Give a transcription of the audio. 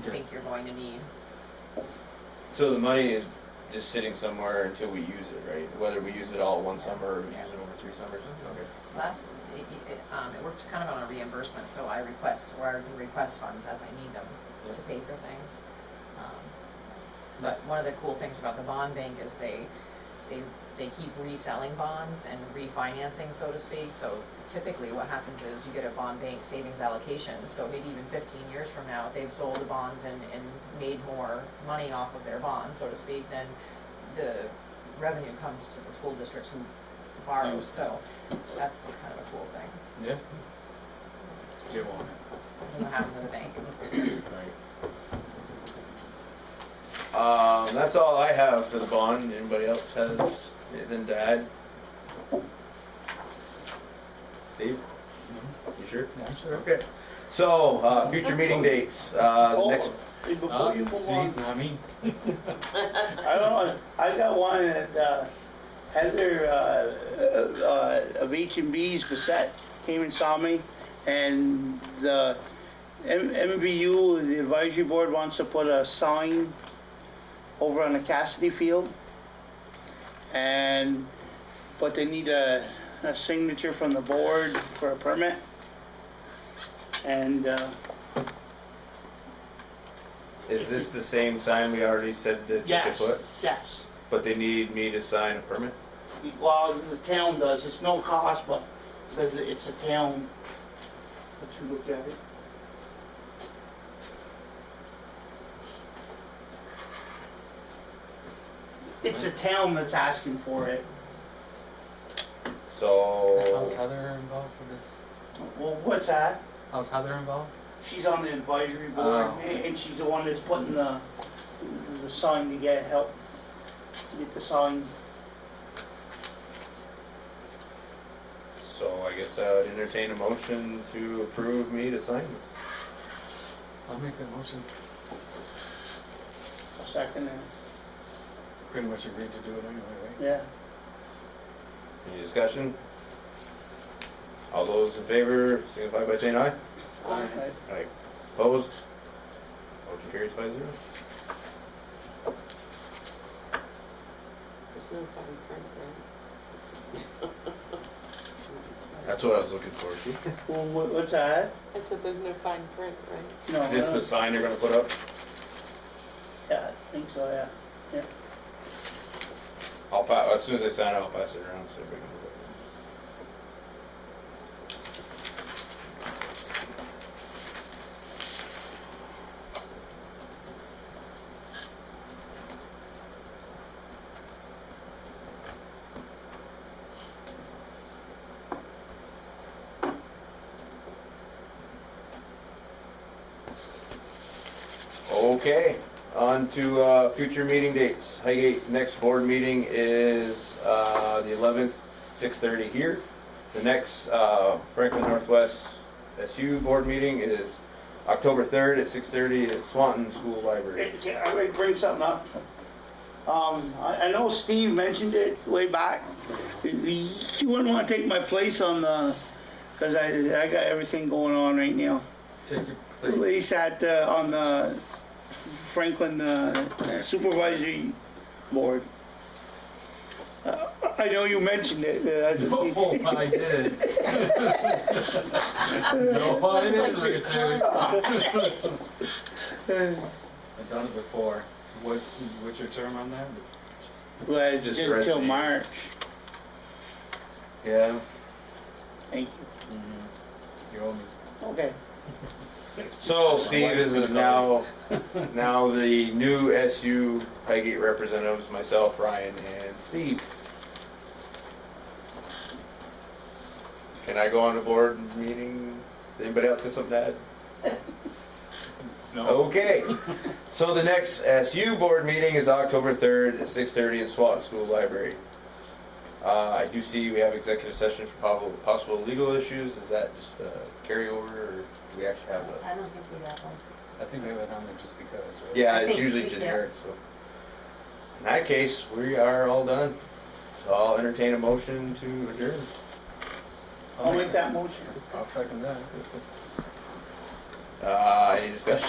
Okay. think you're going to need. So the money is just sitting somewhere until we use it, right? Whether we use it all one summer or we use it over three summers, okay. Last, it, it, um, it works kind of on a reimbursement, so I request, or I can request funds as I need them to pay for things. Um, But one of the cool things about the bond bank is they, they, they keep reselling bonds and refinancing, so to speak. So typically what happens is you get a bond bank savings allocation, so maybe even fifteen years from now, if they've sold the bonds and, and made more money off of their bond, so to speak, then the revenue comes to the school districts who borrow, so that's kind of a cool thing. Yeah. Give on It doesn't happen to the bank. it, right? Um, that's all I have for the bond. Anybody else has anything to add? Steve? You sure? Yeah, sure. Okay. So, uh, future meeting dates, uh, Oh. the next, Hey, Uh, Before you move see, on, it's not me. I don't know, I got one that, uh, Heather, uh, uh, of H and B's Bissette came and saw me, and the M- MVU, the advisory board wants to put a sign over on the Cassidy Field. And, but they need a, a signature from the board for a permit. And, uh, is this the same sign we already said that they yes, put? yes. But they need me to sign a permit? Well, the town does, it's no cost, but the- the- it's a town. Let you look at it. It's a town that's asking for it. So, How's Heather involved with this? Well, what's that? How's Heather involved? She's on the advisory board, Oh. and and she's the one that's putting the, the sign to get help, get the sign. so I guess I would entertain a motion to approve me to sign this. I'll make that motion. Second, and- Pretty much agreed to do it anyway, right? yeah. Any discussion? All those in favor signify by saying aye. Right. Aye. Opposed? Motion carries by zero. There's no fun print, right? That's what I was looking for. Is Well, what- what's that? I said there's no fine print, right? No, this the no. sign they're gonna put up? Yeah, I think so, yeah. I'll pa, as soon as I sign it, I'll pass it around so everybody can look at it. Okay, on to, uh, future meeting dates. Highgate, next board meeting is, uh, the eleventh, six thirty here. The next, uh, Franklin Northwest SU board meeting is October third at six thirty at Swanton School Library. Hey, Can I bring- bring something up? Um, I, I know Steve mentioned it way back. You wouldn't wanna take my place on the, cause I, I got everything going on right now. Take your At place. least at, uh, on the Franklin uh, Supervisory Board. Uh, I know you mentioned it, uh, I just- Oh, I did. No, I didn't, Richard. I've done it before. What's, what's your term on that? well, it's Just just until resume. March. Yeah. Thank you. Mm-hmm. You owe me. Okay. So Steve is now, now the new SU Highgate representatives, myself, Ryan, and Steve. Can I go on the board meeting? Does Anybody else got something to add? No. Okay, so the next SU board meeting is October third at six thirty in Swanton School Library. Uh, I do see we have executive session for possible, possible legal issues, is that just a carryover, or do we actually have a? I don't think we have one. I think they went on there just because, right? Yeah, I it's think usually we do. generic, so. In that case, we are all done. So I'll entertain a motion to adjourn. I'll make that motion. I'll second that. Uh, any discussion?